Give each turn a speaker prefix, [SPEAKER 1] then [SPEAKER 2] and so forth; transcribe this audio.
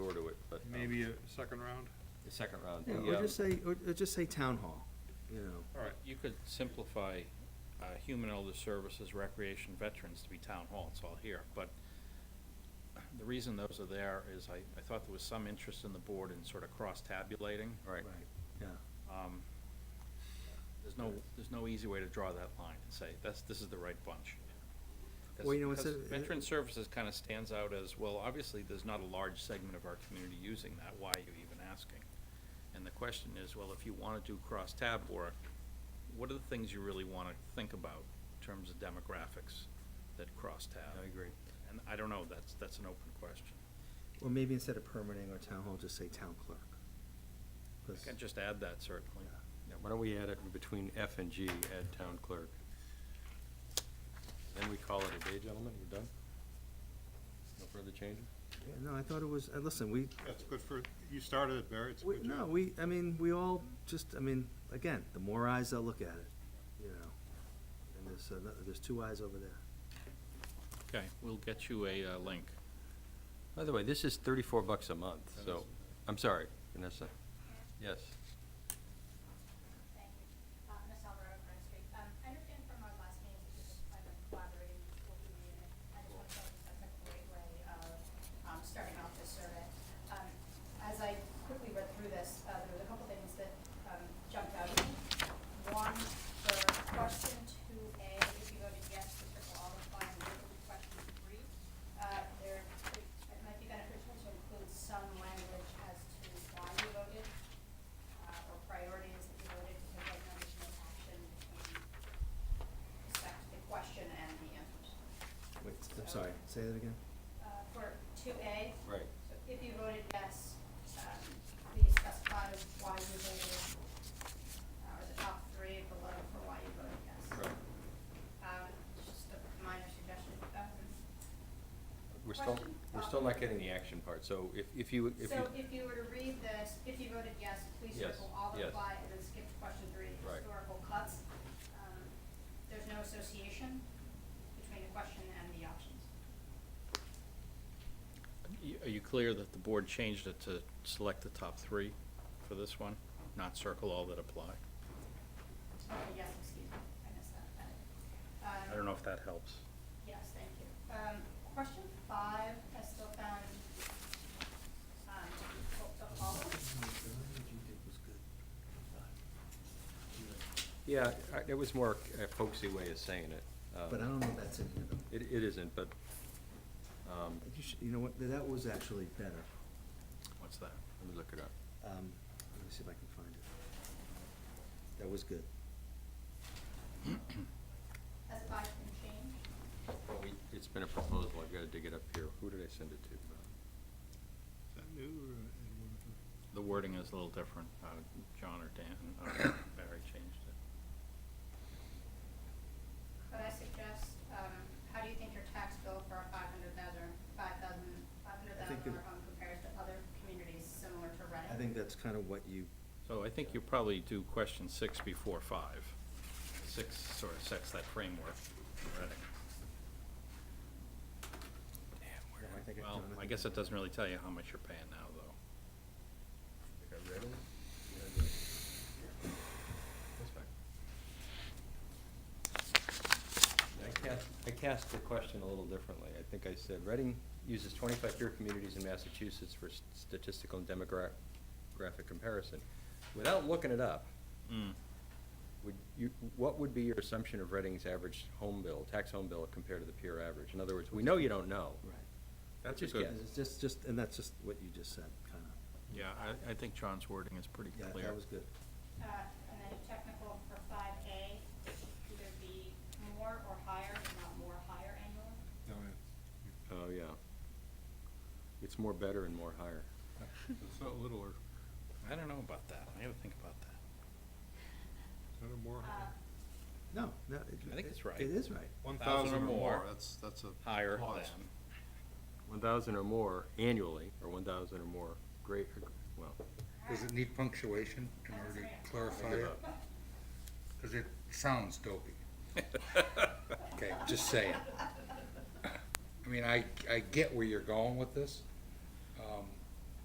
[SPEAKER 1] maybe a second round?
[SPEAKER 2] um, the second round.
[SPEAKER 3] Yeah,
[SPEAKER 2] The,
[SPEAKER 4] uh,
[SPEAKER 3] or
[SPEAKER 2] um,
[SPEAKER 3] just say, or, or just say town hall, you know.
[SPEAKER 1] All right,
[SPEAKER 4] You could simplify, uh, human elder services, recreation, veterans to be town hall, it's all here, but the reason those are there is I, I thought there was some interest in the board in sort of cross-tabulating.
[SPEAKER 2] Right.
[SPEAKER 3] Yeah,
[SPEAKER 4] Um, There's no, there's no easy way to draw that line and say, that's, this is the right bunch. 'Cause-
[SPEAKER 3] Well, you know, uh, it's
[SPEAKER 4] because
[SPEAKER 3] a-
[SPEAKER 4] Veteran services kind of stands out as, well, obviously, there's not a large segment of our community using that, why are you even asking? And the question is, well, if you want to do cross-tab work, what are the things you really want to think about in terms of demographics that cross-tab?
[SPEAKER 2] I agree.
[SPEAKER 4] And I don't know, that's, that's an open question.
[SPEAKER 3] or maybe instead of permitting or town hall, just say town clerk. 'Cause-
[SPEAKER 4] I can just add that certainly.
[SPEAKER 3] Yeah.
[SPEAKER 2] yeah, Why don't we add it in between F and G, add town clerk? Then we call it a day, gentlemen, we're done? No further changes?
[SPEAKER 3] Yeah, No, I thought it was, uh, listen, we,
[SPEAKER 1] that's good for, you started it, Barry, it's a
[SPEAKER 3] we,
[SPEAKER 1] good job.
[SPEAKER 3] no, we, I mean, we all just, I mean, again, the more eyes that look at it, you know. And there's, ano- there's two eyes over there.
[SPEAKER 4] Okay, we'll get you a uh, link.
[SPEAKER 2] By the way, this is thirty-four bucks a month,
[SPEAKER 4] That
[SPEAKER 2] so,
[SPEAKER 4] is-
[SPEAKER 2] I'm sorry, Vanessa. Yes,
[SPEAKER 5] Thank you. Uh, Ms. Alvarado, Front Street. Um, I understand from our last meeting that this plan of collaborating with the school community, and I just want to tell you that's a great way of, um, starting off this survey. Um, as I quickly read through this, uh, there was a couple things that, um, jumped out at me. One, for question two A, if you go to yes, to circle all the fine, look at question three. Uh, there, it might be beneficial to include some language as to why you voted uh, or priorities that you voted to take no additional action between respect to the question and the answers.
[SPEAKER 3] Wait, I'm sorry, say that again?
[SPEAKER 5] Uh, For two A.
[SPEAKER 2] Right.
[SPEAKER 5] So if you voted yes, um, please specify why you voted, uh, or the top three below for why you voted yes.
[SPEAKER 2] Right.
[SPEAKER 5] Um, it's just a minor suggestion. Um,
[SPEAKER 2] we're still,
[SPEAKER 5] Question?
[SPEAKER 2] we're still not getting the action part, so if, if you, if you.
[SPEAKER 5] So if you were to read this, if you voted yes, please
[SPEAKER 2] Yes,
[SPEAKER 5] circle all the
[SPEAKER 2] yes.
[SPEAKER 5] reply and then skip to question three,
[SPEAKER 2] Right.
[SPEAKER 5] historical cuts. Um, There's no association between the question and the options.
[SPEAKER 4] Y- Are you clear that the board changed it to select the top three for this one, not circle all that apply?
[SPEAKER 5] Okay, yes, excuse me, I missed that.
[SPEAKER 4] I don't know if that helps.
[SPEAKER 5] Yes, thank you. Um, question five, I still found, um, to be full- to follow.
[SPEAKER 2] Yeah, I- it was more a folksy way of saying it. um,
[SPEAKER 3] But I don't know if that's in here though.
[SPEAKER 2] It, it isn't, but, um,
[SPEAKER 3] You should- You know what, that was actually better.
[SPEAKER 4] What's that?
[SPEAKER 2] let me look it up.
[SPEAKER 3] Um, let me see if I can find it. That was good.
[SPEAKER 5] Has five been changed?
[SPEAKER 2] Well, we- It's been a proposal, I've gotta dig it up here. Who did I send it to?
[SPEAKER 1] Is that new or? uh,
[SPEAKER 4] The wording is a little different. Uh, John or Dan, uh, Barry changed it.
[SPEAKER 5] Could I suggest, um, how do you think your tax bill for a five hundred thousand, five thousand, five hundred
[SPEAKER 3] I
[SPEAKER 5] thousand
[SPEAKER 3] think
[SPEAKER 5] dollar
[SPEAKER 3] it-
[SPEAKER 5] home compares to other communities similar to Reading?
[SPEAKER 3] I think that's kind of what you,
[SPEAKER 4] So I think you probably do question six before five. Six sort of sets that framework already.
[SPEAKER 3] where did I think it-
[SPEAKER 4] Well, I
[SPEAKER 3] Jonathan-
[SPEAKER 4] guess it doesn't really tell you how much you're paying now, though.
[SPEAKER 2] I cast, I cast the question a little differently. I think I said, Reading uses twenty-five peer communities in Massachusetts for s- statistical and demographic comparison. Without looking it up,
[SPEAKER 4] Mm.
[SPEAKER 2] would you, what would be your assumption of Reading's average home bill, tax home bill compared to the peer average? In other words, we know you don't know.
[SPEAKER 3] Right.
[SPEAKER 2] That's
[SPEAKER 4] a
[SPEAKER 2] just
[SPEAKER 4] good-
[SPEAKER 2] guess.
[SPEAKER 3] It's just, just, and that's just what you just said, kind of.
[SPEAKER 4] Yeah, I, I think John's wording is pretty
[SPEAKER 3] Yeah,
[SPEAKER 4] clear.
[SPEAKER 3] that was good.
[SPEAKER 5] Uh, and then technical for five A, either be more or higher, if not more higher annually.
[SPEAKER 1] No,
[SPEAKER 2] Oh, yeah. It's more better and more higher.
[SPEAKER 3] Uh,
[SPEAKER 1] yeah. It's not littler,
[SPEAKER 4] I don't know about that. I gotta think about that.
[SPEAKER 1] is that a more?
[SPEAKER 5] Uh,
[SPEAKER 3] No, no. it-
[SPEAKER 4] I think it's
[SPEAKER 3] it-
[SPEAKER 4] right.
[SPEAKER 3] It is right.
[SPEAKER 1] One
[SPEAKER 4] 1,000
[SPEAKER 1] thousand
[SPEAKER 4] or
[SPEAKER 1] or more,
[SPEAKER 4] more.
[SPEAKER 1] that's, that's a.
[SPEAKER 4] Higher
[SPEAKER 1] clause.
[SPEAKER 4] than.
[SPEAKER 2] One thousand or more annually, or one thousand or more great, well,
[SPEAKER 6] Does it need punctuation in order to clarify it? Because it sounds dopey. Okay, just saying. I mean, I, I get where you're going with this, Um,